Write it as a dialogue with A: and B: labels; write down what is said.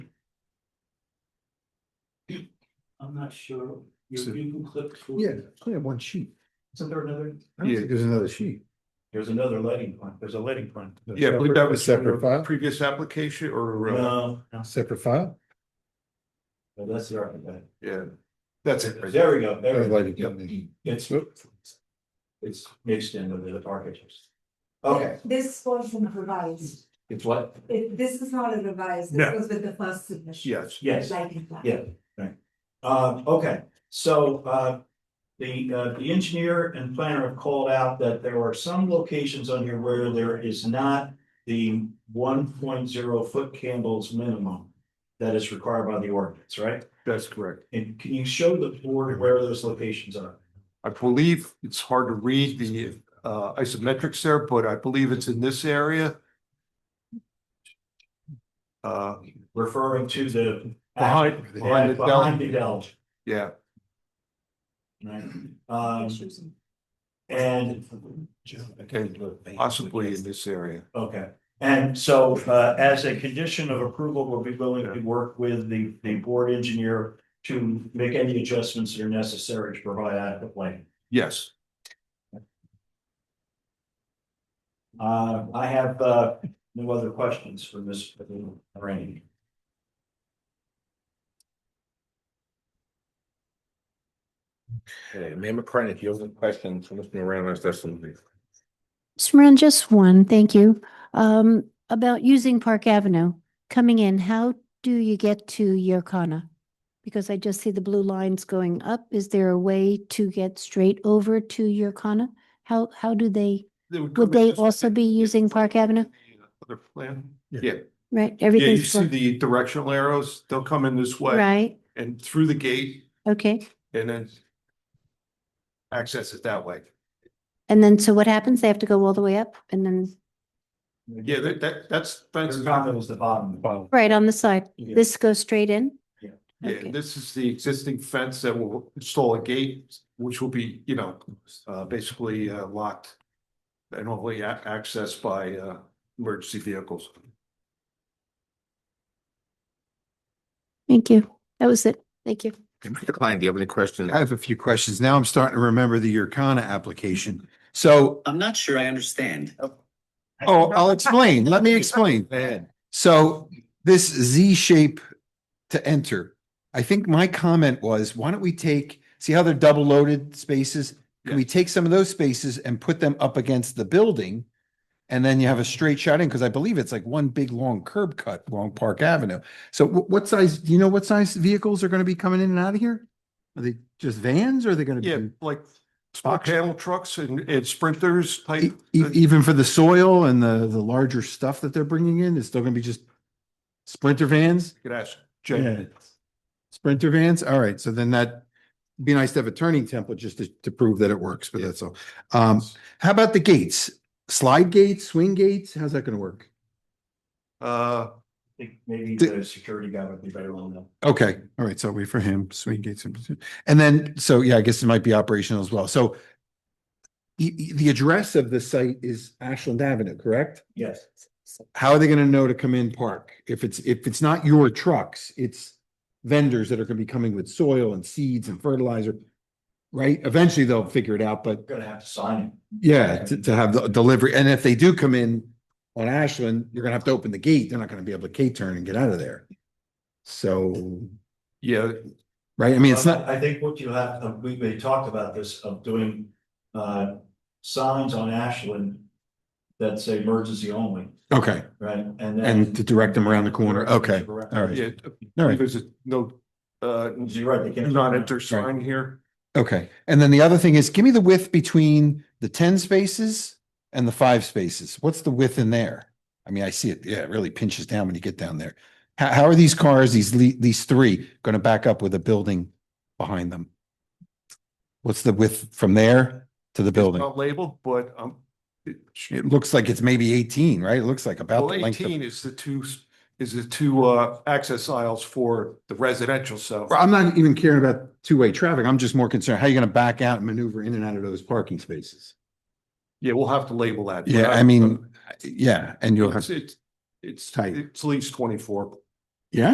A: I'm not sure, you,
B: So-
A: you can click through.
B: Yeah, I only have one sheet.
A: Isn't there another?
B: Yeah, there's another sheet.
A: There's another lighting plan, there's a lighting plan.
C: Yeah, I believe that was
B: Separate
C: a
B: file,
C: previous application or, uh,
A: No, no,
B: separate file.
A: no, that's the architect.
C: yeah, that's it. right
A: There we go, there we go.
B: Oh, Lighting company.
A: It's, it's mixed in with the architects.
D: Yeah,
A: Okay,
D: This wasn't revised,
A: it's what?
D: It- this is not a revised,
C: No.
D: this was with the first submission.
C: Yes.
A: Yes,
D: Lighting plan.
A: Yeah. uh, okay, so, uh, the, uh, the engineer and planner have called out that there are some locations on here where there is not the one point zero foot candles minimum that is required by the ordinance, right?
C: That's correct.
A: And can you show the board where those locations are?
C: I believe it's hard to read the uh isometrics there, but I believe it's in this area. Uh,
A: Referring to the.
C: Behind- behind the bell.
A: Behind the bell,
C: yeah,
A: right? Um,
D: Issues and-
A: and.
C: possibly in this area.
A: Okay, and so uh as a condition of approval, we'll be willing to work with the the board engineer to make any adjustments that are necessary to provide adequate lighting.
C: Yes,
A: Uh, I have uh no other questions for Ms. Rainey.
E: Okay, Mayor McCartney, if you have any questions, Commissioner Ramos, that's something.
F: Mr. Moran, just one, thank you. Um, about using Park Avenue, coming in, how do you get to Yorkana? Because I just see the blue lines going up. Is there a way to get straight over to Yorkana? How, how do they,
C: come
F: Would they
C: in this-
F: also be using Park Avenue?
C: Other plan?
B: Yeah.
C: Yeah,
F: right,
C: yeah, you
F: everything's,
C: see the directional arrows, they'll come in this way
F: right,
C: and through the gate
F: okay.
C: and then access it that way.
F: And then, so what happens? They have to go all the way up and then,
C: Yeah, that that that's that's.
A: Your comment was the bottom.
C: Oh.
F: right on the side,
A: Yeah.
F: this goes straight in?
C: Yeah,
F: Okay.
C: and this is the existing fence that will install a gate, which will be, you know, uh, basically uh, locked. And only a- accessed by, uh, emergency vehicles.
F: Thank you. That was it. Thank you.
E: Commissioner Klein, do you have any questions?
B: I have a few questions. Now I'm starting to remember the Yorkana application. So,
G: I'm not sure I understand.
B: oh, I'll explain. Let me explain. So this Z shape to enter, I think my comment was, why don't we take, see how they're double loaded spaces? Can we take some of those spaces and put them up against the building? And then you have a straight shot in, because I believe it's like one big long curb cut along Park Avenue. So wh- what size, do you know what size vehicles are going to be coming in and out of here? Are they just vans or are they going
C: Yeah,
B: to
C: like small panel trucks and and sprinters
B: be? e-
C: type.
B: e- Even for the soil and the, the larger stuff that they're bringing in, it's still going to be just Sprinter vans?
C: Could ask
B: Yeah.
C: Jen.
B: Sprinter vans, all right, so then that, be nice to have a turning template just to, to prove that it works, but that's all. Um, how about the gates? Slide gates, swing gates, how's that gonna work?
C: Uh,
A: I think Maybe the security guy would be better on that.
B: Okay, all right, so wait for him, swing gates, and and then, so yeah, I guess it might be operational as well, so the, the address of the site is Ashland Avenue, correct?
A: Yes.
B: How are they gonna know to come in park? If it's, if it's not your trucks, it's vendors that are gonna be coming with soil and seeds and fertilizer, right? Eventually they'll figure it out, but
A: We're gonna have to sign it.
B: Yeah, to, to have the delivery, and if they do come in on Ashland, you're gonna have to open the gate, they're not gonna be able to K-turn and get out of there. So,
C: yeah,
B: right, I mean, it's not,
A: I I think what you have, uh, we, we talked about this of doing, uh, signs on Ashland that say emergency only,
B: okay,
A: right? And then.
B: and to direct them around the corner, okay,
A: Correct.
B: all right,
C: yeah,
B: all right,
C: there's a no, uh,
A: You're right, they
C: do
A: can't.
C: not enter sign here.
B: okay. And then the other thing is, give me the width between the ten spaces and the five spaces, what's the width in there? I mean, I see it, yeah, it really pinches down when you get down there. How, how are these cars, these, le- these three, gonna back up with a building behind them? What's the width from there to the building?
C: Not labeled, but um. it-
B: It looks like it's maybe eighteen, right? It looks like about
C: Well,
B: the length of.
C: eighteen is the two, s- is the two uh access aisles for the residential, so.
B: Well, I'm not even caring about two-way traffic. I'm just more concerned, how you gonna back out and maneuver in and out of those parking spaces?
C: Yeah, we'll have to label that.
B: Yeah, I mean, yeah, and you'll have,
C: It's, it's, it's,
B: Tight.
C: it's at least twenty-four.